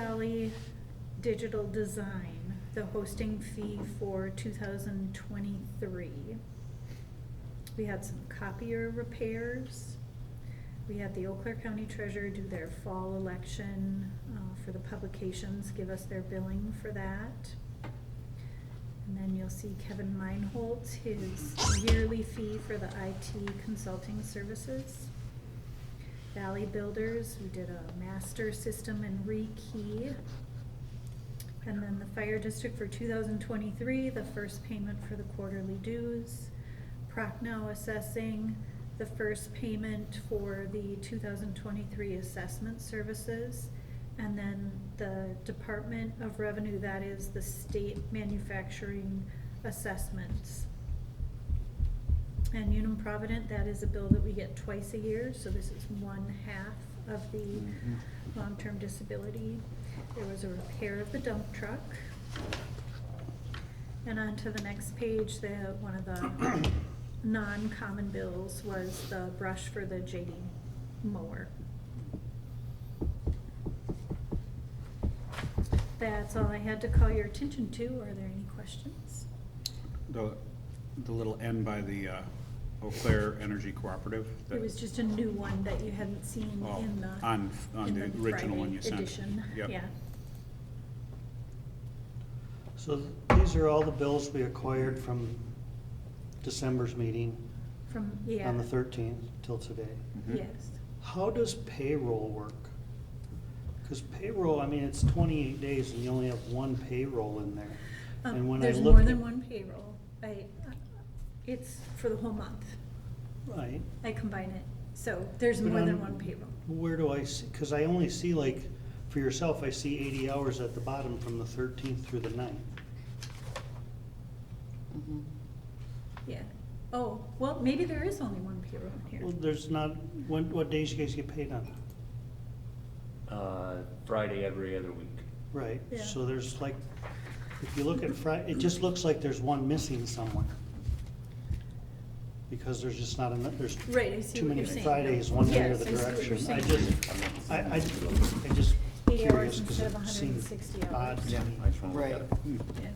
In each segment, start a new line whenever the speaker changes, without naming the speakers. Valley Digital Design, the hosting fee for two thousand twenty-three. We had some copier repairs. We had the Eau Claire County Treasurer do their fall election uh, for the publications, give us their billing for that. And then you'll see Kevin Meinholz, his yearly fee for the IT consulting services. Valley Builders, we did a master system and rekey. And then the fire district for two thousand twenty-three, the first payment for the quarterly dues. Procnow assessing, the first payment for the two thousand twenty-three assessment services. And then the Department of Revenue, that is the state manufacturing assessments. And Unum Provident, that is a bill that we get twice a year, so this is one half of the
Mhm.
long-term disability. There was a repair of the dump truck. And on to the next page, the, one of the non-common bills was the brush for the JD mower. That's all I had to call your attention to. Are there any questions?
The, the little N by the uh, Eau Claire Energy Cooperative? that-
It was just a new one that you hadn't seen
Oh,
in the.
on- on
in
the original one you
Friday
sent.
Edition,
Yep.
yeah.
So th- these are all the bills we acquired from December's meeting
From, yeah.
on the thirteenth till today.
Mhm.
Yes.
How does payroll work? Because payroll, I mean, it's twenty-eight days and you only have one payroll in there.
Um,
And when I
There's
look
more than
at-
one payroll. I, uh, it's for the whole month.
Right,
I combine it. So there's
But
more than
on-
one payroll.
where do I see, because I only see like, for yourself, I see eighty hours at the bottom from the thirteenth through the 9th.
Yeah. Oh, well, maybe there is only one payroll here.
Well, there's not, when, what days you guys get paid on?
Uh, Friday every other week.
Right,
Yeah.
so there's like, if you look at Fri- it just looks like there's one missing somewhere. Because there's just not enough, there's
Right, I see
too
what
many
you're saying.
Fridays, one way or
Yes, I
the
see what you're
direction. I
saying.
just, I, I, I just
Eight hours
curious, because
instead of
it seems
160 hours.
odd to
Yeah,
me.
I just wanna look at it.
Mm-hmm.
Yeah.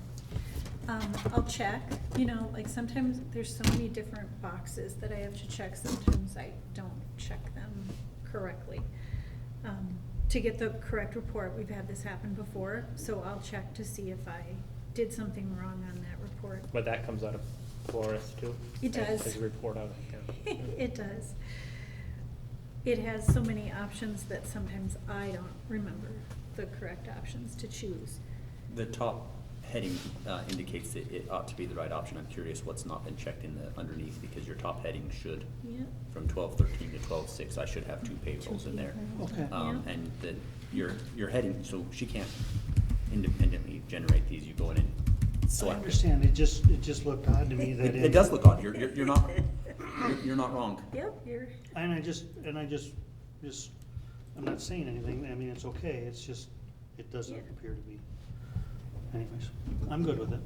Um, I'll check, you know, like sometimes there's so many different boxes that I have to check, sometimes I don't check them correctly. Um, to get the correct report, we've had this happen before, so I'll check to see if I did something wrong on that report.
But that comes out of Flores too?
It does.
As a report out of yeah.
It does. It has so many options that sometimes I don't remember the correct options to choose.
The top heading uh, indicates that it ought to be the right option. I'm curious what's not been checked in the underneath, because your top heading should,
Yeah,
from twelve thirteen to twelve six, I should have two payrolls in there.
Okay,
Um,
Yeah.
and that your, your heading, so she can't independently generate these, you go in and
I
select. it.
understand, it just, it just looked odd to me that
It
it.
it does look odd, you're, you're you're not, you're- you're not wrong.
yep, you're,
And I just, and I just, just, I'm not saying anything, I mean, it's okay, it's just, it doesn't
Yeah.
appear to be. Anyways, I'm good with it,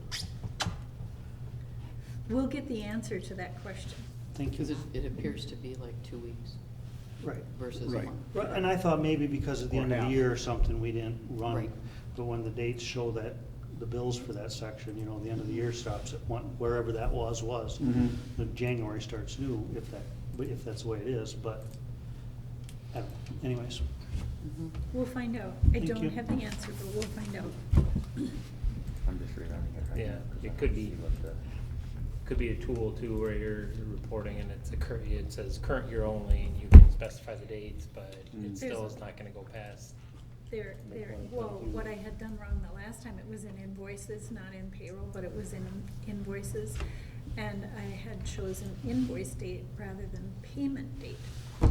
we'll get the answer to that question.
thank
Because
you.
it, it appears to be like two weeks
Right,
versus a
Right.
month.
Right, and I thought maybe because at the
Or
end of the
half.
year or something, we didn't run,
Right.
but when the dates show that, the bills for that section, you know, the end of the year stops at one, wherever that was, was.
Mhm.
The January starts new, if that, if that's the way it is, but, I don't know. anyways,
We'll find out. I
Thank you.
don't have the answer, but we'll find out.
I'm just rewriting it
right Yeah, now, 'cause it I could don't be. see what Could be a tool too where you're you're reporting and it's a cur, it says current year only and you can specify the dates, but
Mm.
it still
There's-
is not gonna go past.
There, there, well, what I had done wrong the last time, it was in invoices, not in payroll, but it was in invoices. And I had chosen invoice date rather than payment date.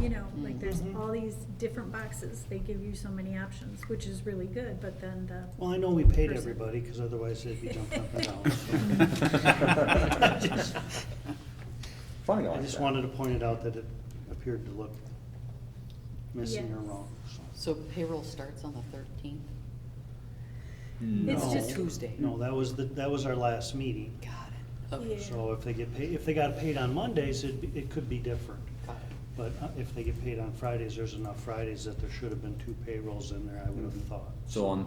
You know, like there's
Mhm.
all these different boxes. They give you so many options, which is really good, but then the.
Well, I know we paid
person-
everybody, because otherwise they'd be jumping up and down. so.
Funny,
I just wanted to point it out that it appeared to look missing or
Yes.
wrong. so.
So payroll starts on the thirteenth?
It's
No,
just-
Tuesday.
No, that was, the that was our last meeting.
Got it.
Yeah.
Okay,
So if they get paid, if they got paid on Mondays, it, it could be different.
got it.
But uh, if they get paid on Fridays, there's enough Fridays that there should have been two payrolls in there, I would have thought.
So on,